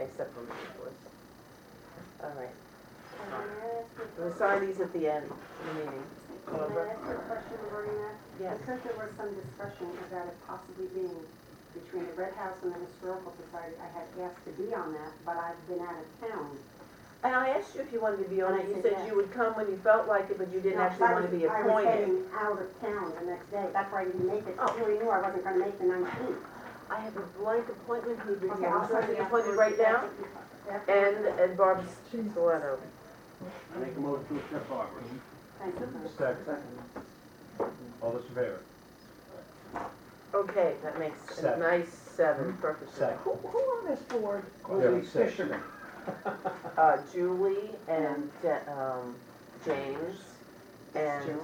except for the reports. All right, Can I ask you a we'll question? sign these at the end of the meeting. Can I ask you a question regarding that? Yes, Because there was some discussion about it possibly being between the Red House and the Historical Society, I had asked to be on that, but I've been out of town. and I asked you if you wanted to be on it, you I said said yes. you would come when you felt like it, but you didn't No, actually I want to was- be I was appointed. heading out of town the next day, that's why I didn't make it, Oh. you already knew I wasn't gonna make the nineteenth. I have a blank appointment, who'd be, Okay, I'll I'm send you that. appointed right now, and, and Barb's Stiletto. I make a motion to accept Barbara's. Thank you. Second. All those in favor? Okay, that makes a Seven. nice seven, perfect. Second. Who, who on this board Yeah, will be six. fishermen? Uh, Julie and, uh, um, James, and,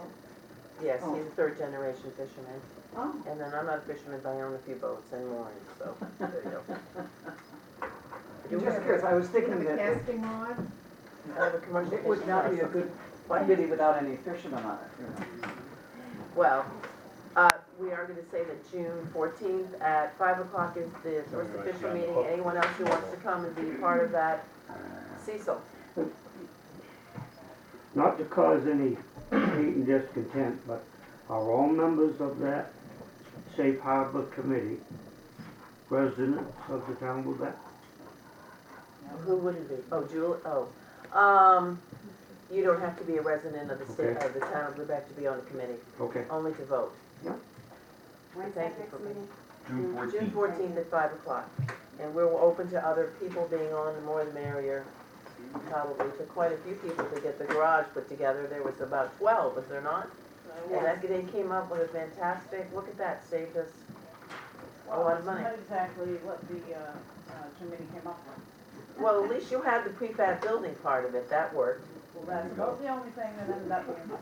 yes, he's a third generation fisherman. Oh, And then I'm not a fisherman, but I own a few boats and mooring, so, there you go. I'm just curious, I was thinking The that it- casting rod? I have a commercial it would fishing not be a license. good committee without any fishermen on it, you know. Well, uh, we are gonna say that June fourteenth at five o'clock is the first official meeting. Anyone else who wants to come and be part of that, Cecil. not to cause any hate and discontent, but are all members of that safe harbor committee residents of the town of Lubec? Who would it be? Oh, Julie, oh. Um, you don't have to be a resident of the state, Okay. of the town of Lubec to be on the committee, Okay. only to vote. when's Thank that you next for- meeting? June June fourteenth. fourteenth at five o'clock. And we're open to other people being on, the more the merrier. Probably took quite a few people to get the garage put together. There was about twelve, was there not? And that, they came up with a fantastic, look at that, saved us a lot of money. Not exactly what the uh, uh, committee came up with. Well, at least you had the prefab building part of it, that worked. Well, that's about the only thing that ended up being the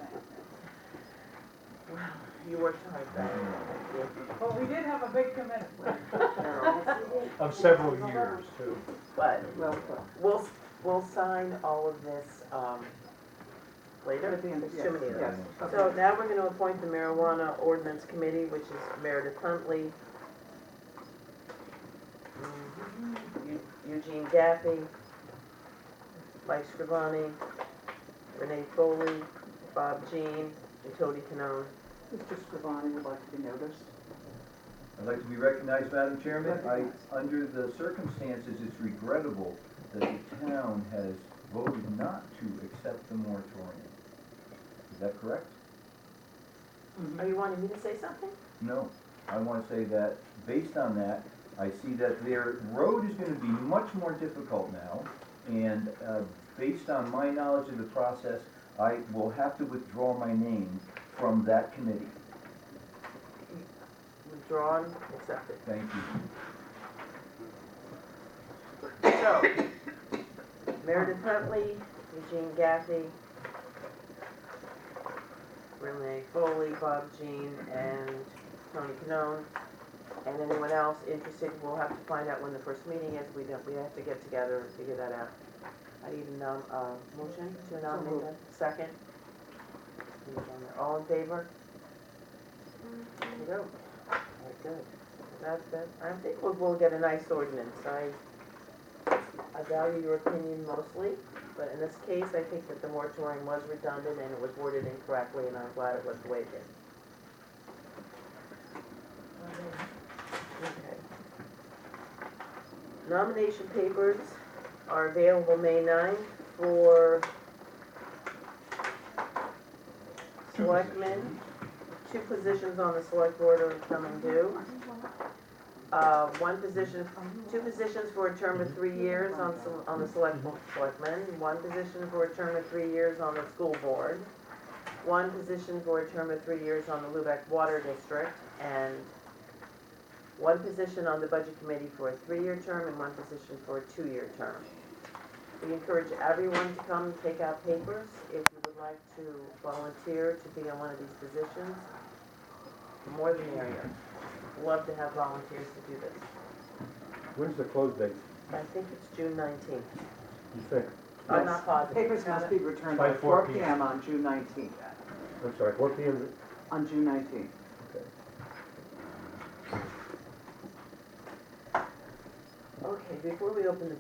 You worked hard, Brad. same. But we did have a big committee. Of several years, too. But Well, but- we'll, we'll sign all of this, um, later. At the end of- There's too many of yes, yes, So okay. now we're gonna appoint the marijuana ordinance committee, which is Meredith Huntley, Mm-hmm. Eu- Eugene Gaffey, Mike Scrivani, Renee Foley, Bob Jean, and Tony Canone. Mr. Scrivani would like to be noticed. I'd like to be recognized, Madam Chairman. I, Recognized. under the circumstances, it's regrettable that the town has voted not to accept the moratorium. Is that correct? Mm-hmm. Are you wanting me to say something? No. I want to say that, based on that, I see that their road is going to be much more difficult now. And uh, based on my knowledge of the process, I will have to withdraw my name from that committee. Withdrawn, accepted. Thank you. So, Meredith Huntley, Eugene Gaffey, Renee Foley, Bob Jean, and Tony Canone. And anyone else interested, we'll have to find out when the first meeting is. We don't, we have to get together and figure that out. I need a nom, uh, motion to nominate them. Second? All in favor? There you go. All right, good. That, that, I think we'll, we'll get a nice ordinance. I, I value your opinion mostly, but in this case, I think that the moratorium was redundant and it was worded incorrectly, and I'm glad it was the way it is. Okay. Nomination papers are available May 9th for selectmen. Two positions on the select board are coming due. Uh, one position, two positions for a term of three years on, sel- on the select, selectmen, one position for a term of three years on the school board, one position for a term of three years on the Lubec Water District, and one position on the budget committee for a three-year term and one position for a two-year term. We encourage everyone to come and take out papers if you would like to volunteer to be on one of these positions. the More the merrier. Love to have volunteers to do this. When's the close date, I think it's June nineteenth. you think? I'm Yes. not positive. Papers must be returned By by 4 four p.m. PM on June nineteenth, I'm sorry, what the end, on June nineteenth. Okay, before we open the